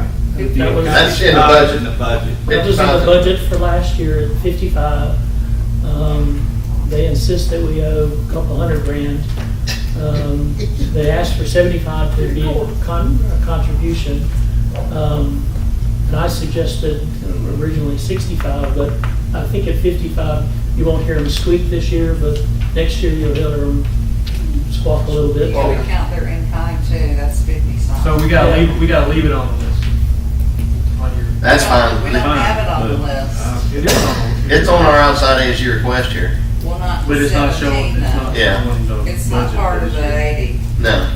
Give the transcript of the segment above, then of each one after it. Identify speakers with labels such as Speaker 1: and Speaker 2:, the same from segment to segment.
Speaker 1: That was-
Speaker 2: That's in the
Speaker 3: Not
Speaker 4: uh,
Speaker 2: budget.
Speaker 3: In the budget.
Speaker 2: It
Speaker 1: That was in the budget for last year at fifty-five. Um, They insist that we owe a couple hundred grand. Um, They asked for seventy-five to be a con- a contribution. Um, And I suggested originally sixty-five, but I think at fifty-five, you won't hear them squeak this year, but next year you'll hear them squawk a little
Speaker 5: You
Speaker 1: bit.
Speaker 5: gotta count their in-kind too, that's fifty something.
Speaker 4: So we gotta leave, we gotta leave it on the list. On your.
Speaker 2: That's fine.
Speaker 5: We don't have it on the
Speaker 3: Fine, but,
Speaker 5: list.
Speaker 3: uh, It is on the list.
Speaker 2: It's on our outside as you request here.
Speaker 5: Well, not
Speaker 3: But it's not showing,
Speaker 5: seventeen
Speaker 3: it's not
Speaker 5: though.
Speaker 2: Yeah.
Speaker 3: showing the budget.
Speaker 5: It's not part
Speaker 3: for
Speaker 5: of
Speaker 3: this
Speaker 5: the
Speaker 3: year.
Speaker 5: eighty.
Speaker 2: No.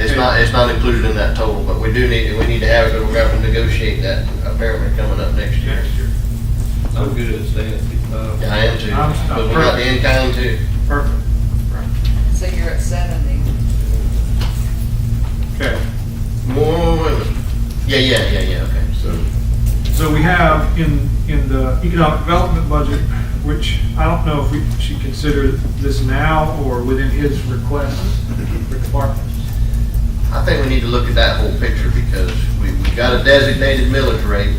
Speaker 2: It's not, it's not included in that total, but we do need, we need to have it, but we're gonna have to negotiate that apparently coming up next year.
Speaker 3: Next year.
Speaker 6: I'm good at staying at fifty-five.
Speaker 2: Yeah, I am too,
Speaker 4: I'm- I'm
Speaker 2: but we got the in-kind too.
Speaker 4: Perfect. Right.
Speaker 5: So you're at seventy.
Speaker 4: Okay.
Speaker 2: Whoa, wait a minute. Yeah, yeah, yeah, yeah, okay.
Speaker 4: So, so we have in, in the economic development budget, which I don't know if we should consider this now or within his request for departments.
Speaker 2: I think we need to look at that whole picture because we, we got a designated millage rate,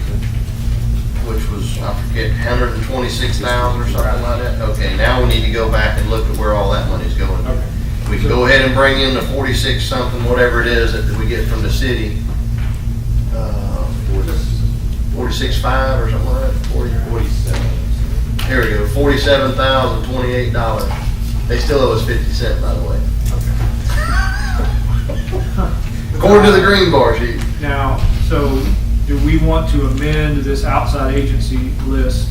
Speaker 2: which was, I forget, hundred and twenty-six thousand or something like that. Okay, now we need to go back and look at where all that money's going.
Speaker 4: Okay.
Speaker 2: We can go ahead and bring in the forty-six something, whatever it is that we get from the city. uh, Forty-six five or something like that, forty,
Speaker 6: Forty-seven.
Speaker 2: here we go, forty-seven thousand twenty-eight dollars. They still owe us fifty cent, by the way. According to the green bar sheet.
Speaker 4: Now, so do we want to amend this outside agency list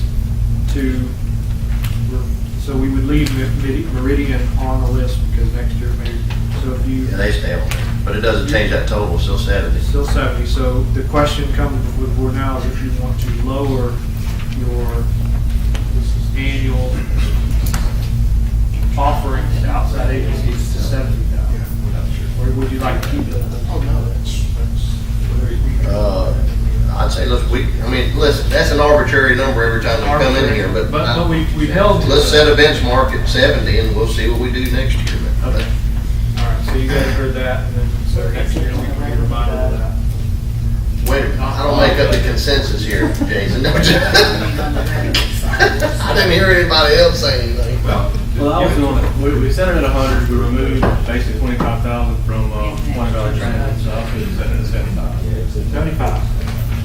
Speaker 4: to, so we would leave Meri- Meridian on the list because next year maybe, so if you,
Speaker 2: Yeah, they stay on there, but it doesn't change that total, it's still Saturday.
Speaker 4: it's still 70, so the question comes before the board now is if you want to lower your annual offerings to outside agencies to 70,000? Or would you like to keep it?
Speaker 6: Oh, no, that's, that's.
Speaker 2: Uh, I'd say, look, we, I mean, listen, that's an arbitrary number every time we come in here, but. uh,
Speaker 4: But, but we, we held to it.
Speaker 2: Let's set a benchmark at seventy and we'll see what we do next year. but-
Speaker 4: Okay. All right, so you guys heard that, and then, so next year we can be reminded of that.
Speaker 2: Wait, a minute, I don't make up the consensus here, Jason. don't you? I didn't hear anybody else say anything.
Speaker 3: Well, I was
Speaker 6: doing, we, we set it at a hundred, we removed basically twenty-five thousand from, uh, twenty dollar transit, so I could set it at seventy-five.
Speaker 4: Seventy-five.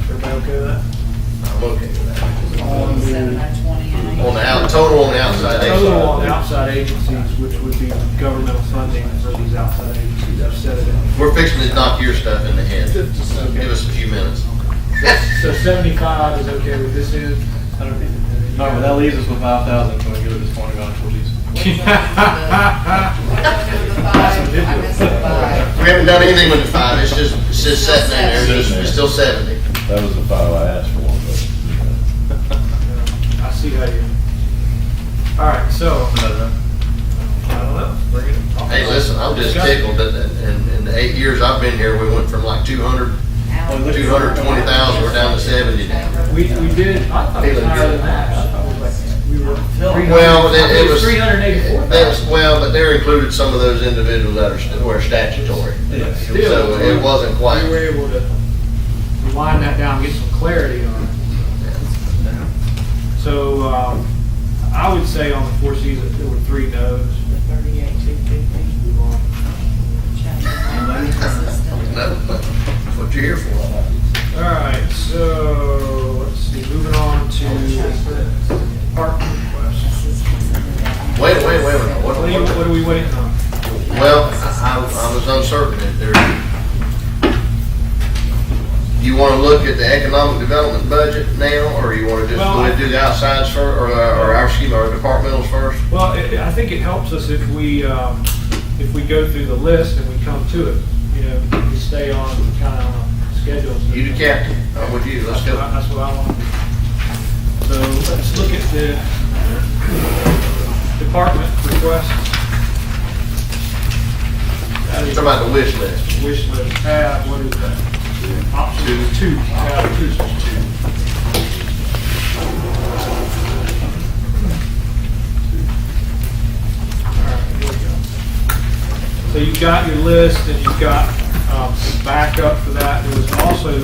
Speaker 4: Everybody okay with
Speaker 2: I'm okay with that.
Speaker 4: that? On
Speaker 5: Seven
Speaker 4: the
Speaker 5: by twenty and
Speaker 2: On the out, total on the outside. they-
Speaker 4: total on outside agencies, which would be governmental funding for these outside agencies, I've said it.
Speaker 2: We're fixing to knock your stuff in the head. Give us a few minutes.
Speaker 4: So seventy-five is okay with this end? I don't think-
Speaker 6: All right, well, that leaves us with five thousand, can we give it this twenty dollar for these?
Speaker 5: I missed the five.
Speaker 2: We haven't done anything with the five, it's just, it's just sitting in there, it's, just- it's still seventy.
Speaker 7: That was the file I asked for, but, you know.
Speaker 4: I see how you. All right, so, I don't know, bring it.
Speaker 2: Hey, listen, I'm just tickled that, that- in, in the eight years I've been here, we went from like two hundred, two hundred twenty thousand, we're down to seventy now.
Speaker 4: We, we did, I thought it was higher than that, I thought it was like, we were.
Speaker 2: Well, it it was.
Speaker 4: Three hundred eighty-four
Speaker 2: that's-
Speaker 4: thousand.
Speaker 2: Well, but there included some of those individuals that are, st- were statutory,
Speaker 6: Yes.
Speaker 4: Still,
Speaker 2: so it wasn't
Speaker 4: We were
Speaker 2: quite.
Speaker 4: able to line that down, get some clarity on it. So, um, I would say on the four seasons, there were three no's.
Speaker 5: Thirty-eight, two fifty.
Speaker 4: Move on.
Speaker 2: No, that's what you're here for.
Speaker 4: All right, so, let's see, moving on to park requests.
Speaker 2: Wait, wait, wait, wait, what,
Speaker 4: What are you, what
Speaker 2: what,
Speaker 4: are we waiting on?
Speaker 2: well, I, I I was uncertain if there. You wanna look at the economic development budget now, or you wanna just,
Speaker 4: Well,
Speaker 2: wanna
Speaker 4: I-
Speaker 2: do the outsides first, or, uh, or our, excuse me, our departmentals first?
Speaker 4: Well, it- it- I think it helps us if we, um, if we go through the list and we come to it, you know, we stay on kind of on a schedule. so-
Speaker 2: You the captain, I'm with you, let's
Speaker 4: That's
Speaker 2: go.
Speaker 4: what I- that's what I want. So let's look at the department requests. That
Speaker 2: Talk
Speaker 4: is
Speaker 2: about the wish list.
Speaker 4: wish list tab, what is that? Option two, tab two. All right, here we go. So you've got your list and you've got um, some backup for that. There was also